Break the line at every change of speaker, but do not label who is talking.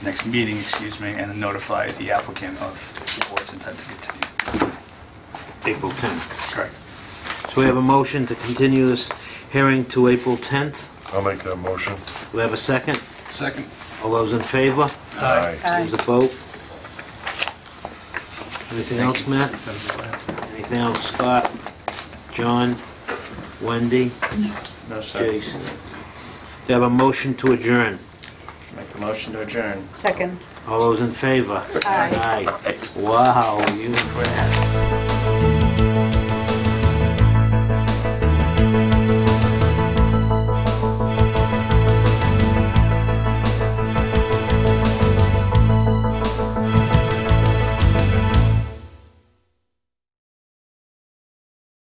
next meeting, excuse me, and notify the applicant of the board's intent to continue.
April 10th.
Correct.
So we have a motion to continue this hearing to April 10th.
I'll make that motion.
We have a second.
Second.
All those in favor?
Aye.
There's a vote. Anything else, Matt?
That is all I have.
Anything else, Scott? John? Wendy?
No, sir.
Jason? They have a motion to adjourn.
Make a motion to adjourn.
Second.
All those in favor?
Aye.
Aye. Wow, you...